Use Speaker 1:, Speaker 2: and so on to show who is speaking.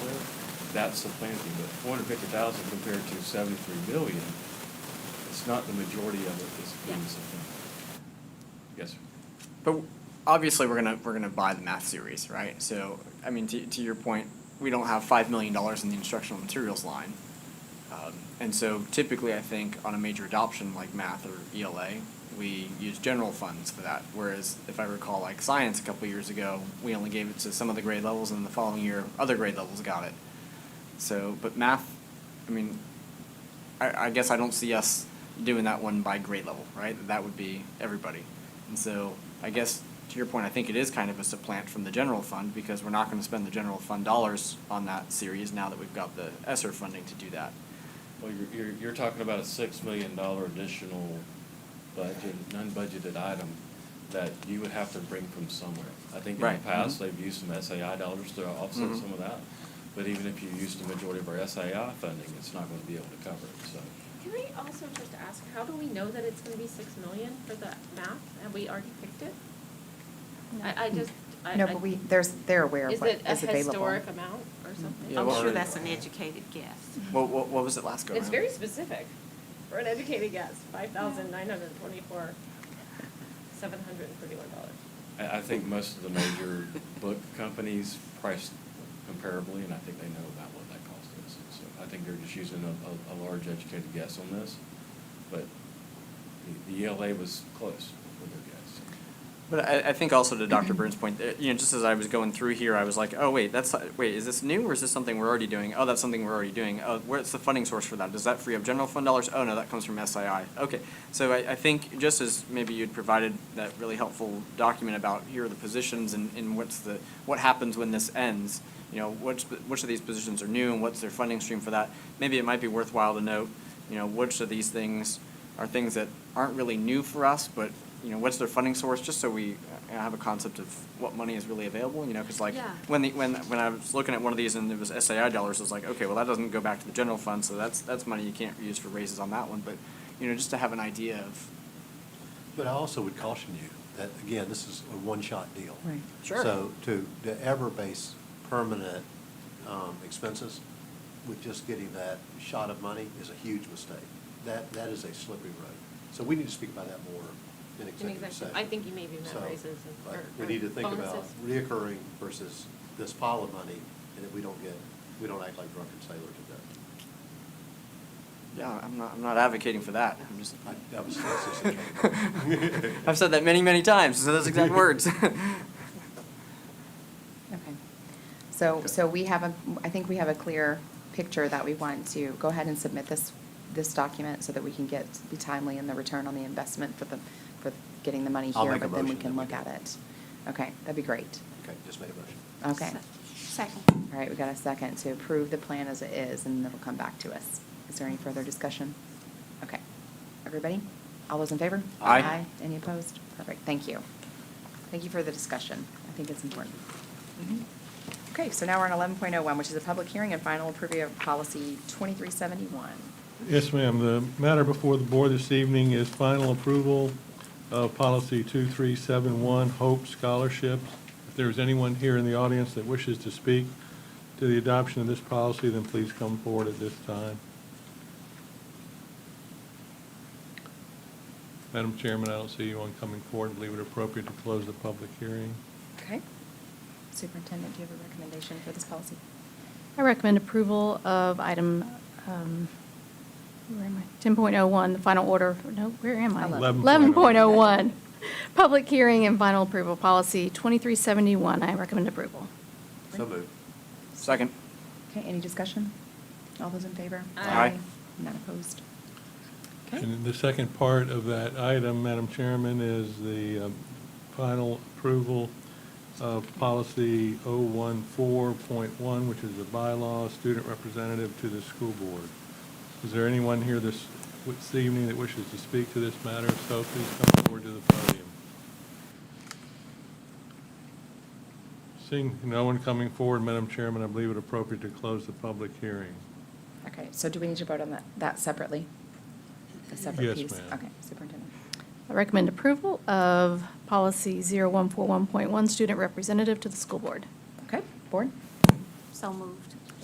Speaker 1: that's the planting, but four hundred fifty thousand compared to seventy-three million, it's not the majority of it that's being
Speaker 2: Yeah.
Speaker 1: supplanted. Yes, sir.
Speaker 3: But obviously, we're gonna, we're gonna buy the math series, right? So, I mean, to, to your point, we don't have five million dollars in the instructional materials line. Um, And so typically, I think on a major adoption like math or ELA, we use general funds for that. Whereas if I recall, like science a couple years ago, we only gave it to some of the grade levels and the following year, other grade levels got it. So, but math, I mean, I, I guess I don't see us doing that one by grade level, right? That would be everybody. And so I guess to your point, I think it is kind of a supplant from the general fund because we're not going to spend the general fund dollars on that series now that we've got the ESSER funding to do that.
Speaker 1: Well, you're, you're, you're talking about a six million dollar additional budget, non-budgeted item that you would have to bring from somewhere. I think in the
Speaker 3: Right.
Speaker 1: past, they've used some SAI dollars to offset
Speaker 3: Mhm.
Speaker 1: some of that. But even if you use the majority of our SAI funding, it's not gonna be able to cover it, so.
Speaker 2: Can I also just ask, how do we know that it's gonna be six million for the math? Have we already picked it? I, I just, I.
Speaker 4: No,
Speaker 2: I-
Speaker 4: but we, there's, they're aware of
Speaker 2: Is
Speaker 4: what
Speaker 2: it a
Speaker 4: is available. Mm-hmm.
Speaker 2: historic amount or something?
Speaker 3: Yeah, I'm well,
Speaker 5: I'm sure
Speaker 3: already-
Speaker 5: that's an educated guess.
Speaker 3: What, what, what was it last go
Speaker 2: Mm-hmm. It's
Speaker 3: around?
Speaker 2: very specific for an educated guess, five thousand nine hundred and twenty-four, seven hundred and thirty-one dollars.
Speaker 1: I, I think most of the major book companies price comparably, and I think they know about what that cost is. So I think they're just using a, a, a large educated guess on this, but the, the ELA was close with their guess.
Speaker 3: But I, I think also to Dr. Burns' point, that, you know, just as I was going through here, I was like, oh, wait, that's, wait, is this new or is this something we're already doing? Oh, that's something we're already doing. Oh, where's the funding source for that? Does that free up general fund dollars? Oh, no, that comes from SII. Okay. So I, I think just as maybe you'd provided that really helpful document about here are the positions and, and what's the, what happens when this ends, you know, which, which of these positions are new and what's their funding stream for that? Maybe it might be worthwhile to note, you know, which of these things are things that aren't really new for us, but, you know, what's their funding source, just so we uh, have a concept of what money is really available, you know, because like,
Speaker 2: Yeah.
Speaker 3: when the, when, when I was looking at one of these and it was SAI dollars, I was like, okay, well, that doesn't go back to the general fund, so that's, that's money you can't use for raises on that one, but, you know, just to have an idea of,
Speaker 6: But I also would caution you that, again, this is a one-shot deal.
Speaker 4: Right.
Speaker 3: Sure.
Speaker 6: So to, to ever base permanent um, expenses with just getting that shot of money is a huge mistake. That, that is a slippery road. So we need to speak about that more in executive
Speaker 2: executive-
Speaker 6: session.
Speaker 2: I think you may be meant
Speaker 6: So,
Speaker 2: raises and-
Speaker 6: but
Speaker 2: or-
Speaker 6: We need to think about
Speaker 2: bonuses.
Speaker 6: reoccurring versus this pile of money, and that we don't get, we don't act like drunken sailors with
Speaker 3: yeah, I'm not, I'm not advocating for that, I'm just.
Speaker 6: that. I- That was, that's just a joke.
Speaker 3: I've said that many, many times, so those exact words.
Speaker 4: Okay. So, so we have a, I think we have a clear picture that we want to go ahead and submit this, this document so that we can get, be timely in the return on the investment for the, for getting the money
Speaker 6: I'll
Speaker 4: here,
Speaker 6: make a
Speaker 4: but then we
Speaker 6: motion
Speaker 4: can
Speaker 6: that
Speaker 4: look
Speaker 6: we
Speaker 4: at it. Okay, that'd be great.
Speaker 6: Okay, just made a motion.
Speaker 4: Okay.
Speaker 5: Se- Second.
Speaker 4: All right, we got a second to approve the plan as it is, and it'll come back to us. Is there any further discussion? Okay. Everybody? All those in favor?
Speaker 3: Aye.
Speaker 4: Any opposed? Perfect, thank you. Thank you for the discussion. I think it's important. Okay, so now we're on eleven point oh one, which is a public hearing and final approval of policy twenty-three seventy-one.
Speaker 7: Yes, ma'am. The matter before the board this evening is final approval of policy 2371, Hope Scholarships. If there's anyone here in the audience that wishes to speak to the adoption of this policy, then please come forward at this time. Madam Chairman, I don't see anyone coming forward. I believe it appropriate to close the public hearing.
Speaker 4: Okay. Superintendent, do you have a recommendation for this policy?
Speaker 8: I recommend approval of item, um, where am I? 10.01, the final order, no, where am I?
Speaker 4: Eleven.
Speaker 7: oh.
Speaker 8: 11.01, public hearing and final approval, policy 2371. I recommend approval.
Speaker 6: So moved.
Speaker 3: Second.
Speaker 4: Okay, any discussion? All those in favor?
Speaker 2: Aye.
Speaker 3: Aye.
Speaker 4: None opposed? Okay.
Speaker 7: And the second part of that item, Madam Chairman, is the um, final approval of policy 014.1, which is the bylaw student representative to the school board. Is there anyone here this, this evening that wishes to speak to this matter? If so, please come forward to the podium. Seeing no one coming forward, Madam Chairman, I believe it appropriate to close the public hearing.
Speaker 4: Okay, so do we need to vote on that, that separately? The separate
Speaker 7: Yes,
Speaker 4: piece?
Speaker 7: ma'am.
Speaker 4: Okay, superintendent.
Speaker 8: I recommend approval of policy 0141.1, student representative to the school board.
Speaker 4: Okay, board?
Speaker 5: So moved.